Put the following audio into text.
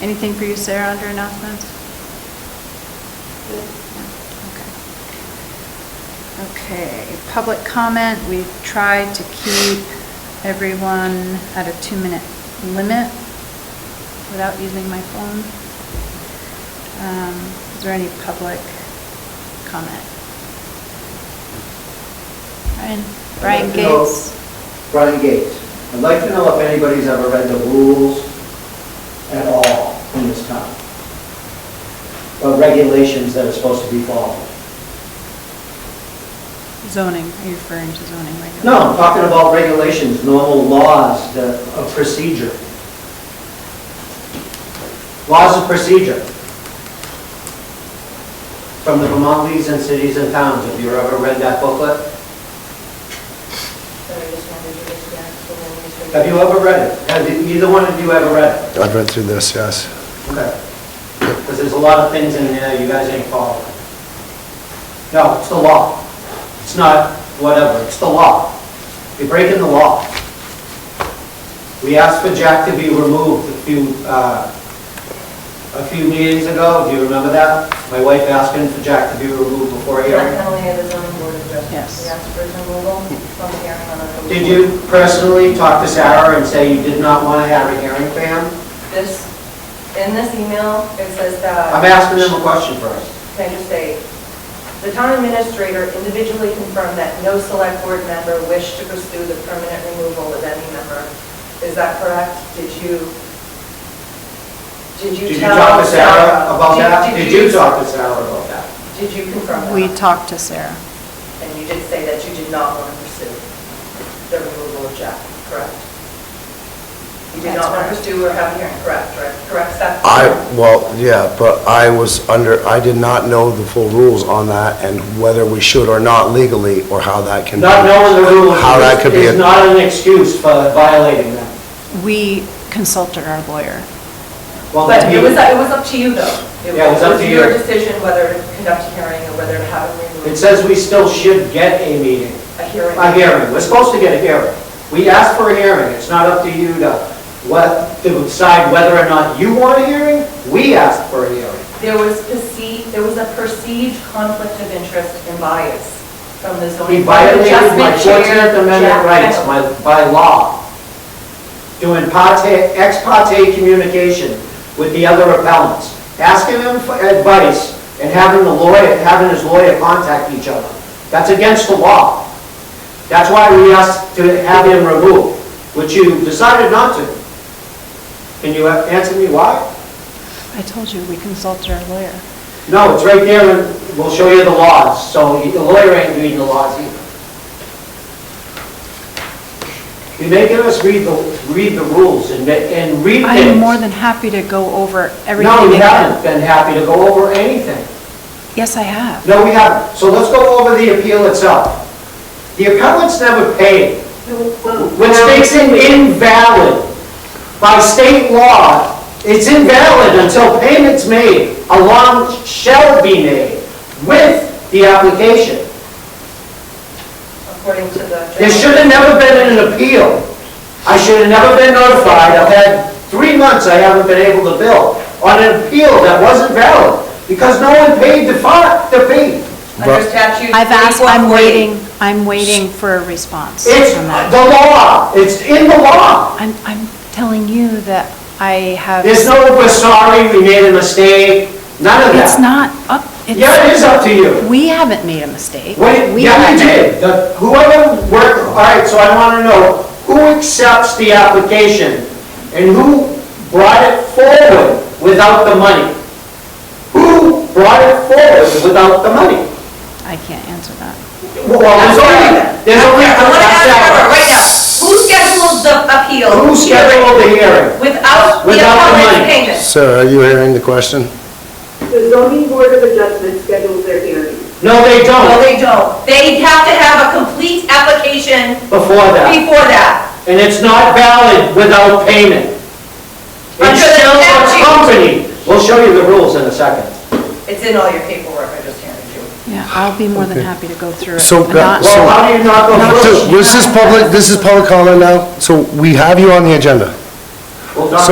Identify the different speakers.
Speaker 1: Anything for you, Sarah, under announcements? Okay, public comment, we've tried to keep everyone at a two-minute limit without using my phone. Um, Is there any public comment? Brian, Brian
Speaker 2: I'd like to know-
Speaker 1: Gates?
Speaker 2: Brian Gates. I'd like to know if anybody's ever read the rules at all in this town, or regulations that are supposed to be followed.
Speaker 1: Zoning, are you referring to zoning regulations?
Speaker 2: No, I'm talking about regulations, normal laws that- of procedure. Laws of procedure from the Vermont Leagues and Cities and Towns. Have you ever read that booklet?
Speaker 3: So I just wanted to get to that, so when we start-
Speaker 2: Have you ever read it? Have you- either one of you ever read it?
Speaker 4: I've read through this, yes.
Speaker 2: Okay. Because there's a lot of things in there you guys ain't following. No, it's the law. It's not whatever, it's the law. You're breaking the law. We asked for Jack to be removed a few, uh, a few meetings ago, do you remember that? My wife asking for Jack to be removed before a
Speaker 3: Not
Speaker 2: hearing.
Speaker 3: Penalty of the zoning board of adjustments.
Speaker 1: Yes.
Speaker 3: We asked for his removal from the hearing on October.
Speaker 2: Did you personally talk to Sarah and say you did not want to have a hearing for him?
Speaker 3: This, in this email, it says that.
Speaker 2: I'm asking them a question first.
Speaker 3: Can I just say, the town administrator individually confirmed that no select board member wished to pursue the permanent removal of any member. Is that correct? Did you, did
Speaker 2: Did
Speaker 3: you
Speaker 2: you
Speaker 3: tell?
Speaker 2: talk to Sarah about
Speaker 3: Did-
Speaker 2: that? Did you talk to Sarah about that?
Speaker 3: Did you confirm that?
Speaker 1: We talked to Sarah.
Speaker 3: And you did say that you did not want to pursue the removal of Jack, correct? You did
Speaker 1: That's
Speaker 3: not
Speaker 1: correct.
Speaker 3: want to pursue or have a hearing, correct, right? Correct, Seth?
Speaker 4: I, well, yeah, but I was under, I did not know the full rules on that and whether we should or not legally, or how that can be.
Speaker 2: Not knowing the rules
Speaker 4: How that could be
Speaker 2: is
Speaker 4: a-
Speaker 2: not an excuse for violating them.
Speaker 1: We consulted our lawyer.
Speaker 2: Well,
Speaker 3: But
Speaker 2: that
Speaker 3: it was,
Speaker 2: you,
Speaker 3: it was up to you, though.
Speaker 2: Yeah, it was up to
Speaker 3: your
Speaker 2: you.
Speaker 3: decision whether to conduct a hearing or whether to have a removal.
Speaker 2: it says we still should get a meeting,
Speaker 3: A hearing.
Speaker 2: a hearing. We're supposed to get a hearing. We asked for a hearing. It's not up to you to, what, to decide whether or not you want a hearing. We asked for a hearing.
Speaker 3: There was perceived, there was a perceived conflict of interest and bias from the
Speaker 2: He
Speaker 3: zoning. board of
Speaker 2: violated my
Speaker 3: adjustment chair,
Speaker 2: Fourteenth Amendment
Speaker 3: Jack
Speaker 2: rights
Speaker 3: Reynolds.
Speaker 2: my- by law, doing parte, ex parte communication with the other appellants, asking them for advice and having the lawyer, having his lawyer contact each other. That's against the law. That's why we asked to have him removed, which you decided not to. Can you answer me why?
Speaker 1: I told you, we consulted our lawyer.
Speaker 2: No, it's right there, and we'll show you the laws, so the lawyer ain't reading the laws either. You're making us read the, read the rules and, ma- and read things.
Speaker 1: I am more than happy to go over everything.
Speaker 2: No, we
Speaker 1: again.
Speaker 2: haven't been happy to go over anything.
Speaker 1: Yes, I have.
Speaker 2: No, we haven't. So let's go over the appeal itself. The appellants never paid, which makes it invalid. By state law, it's invalid until payments made, a loan shall be made with the application.
Speaker 3: According to the.
Speaker 2: There should have never been an appeal. I should have never been notified. I've had three months I haven't been able to bill on an appeal that wasn't valid because no one paid the fine, the fee.
Speaker 3: Under statute.
Speaker 1: I've asked, I'm
Speaker 3: 4440.
Speaker 1: waiting, I'm waiting for a response from
Speaker 2: It's
Speaker 1: that.
Speaker 2: the law. It's in the law.
Speaker 1: I'm, I'm telling you that I have,
Speaker 2: There's no, we're sorry, we made a mistake, none of that.
Speaker 1: it's not up,
Speaker 2: Yeah, it is
Speaker 1: it's,
Speaker 2: up to you.
Speaker 1: we haven't made a mistake.
Speaker 2: What,
Speaker 1: We
Speaker 2: yeah, I
Speaker 1: haven't.
Speaker 2: did. The- Whoever worked, all right, so I want to know, who accepts the application and who brought it forward without the money? Who brought it forward without the money?
Speaker 1: I can't answer that.
Speaker 2: Well, there's only, there's only.
Speaker 3: I want to ask Deborah right now, who scheduled the appeal?
Speaker 2: Who scheduled the hearing?
Speaker 3: Without the
Speaker 2: Without the money.
Speaker 3: appellant's payment?
Speaker 4: Sarah, are you hearing the question?
Speaker 5: The zoning board of adjustment schedules their hearings.
Speaker 2: No, they
Speaker 3: No,
Speaker 2: don't,
Speaker 3: they don't. They have to have a complete application
Speaker 2: before that.
Speaker 3: before that.
Speaker 2: And it's not valid without payment.
Speaker 3: Under
Speaker 2: It's
Speaker 3: the
Speaker 2: still a
Speaker 3: statute.
Speaker 2: company. We'll show you the rules in a second.
Speaker 3: It's in all your paperwork, I just handed you.
Speaker 1: Yeah, I'll be more than happy to go through it.
Speaker 4: So,
Speaker 1: I'm
Speaker 4: uh,
Speaker 1: not-
Speaker 4: so-
Speaker 2: Well, how do you not go
Speaker 4: So,
Speaker 2: first?
Speaker 4: this is public, this is public comment now, so we have you on the agenda.
Speaker 2: We'll talk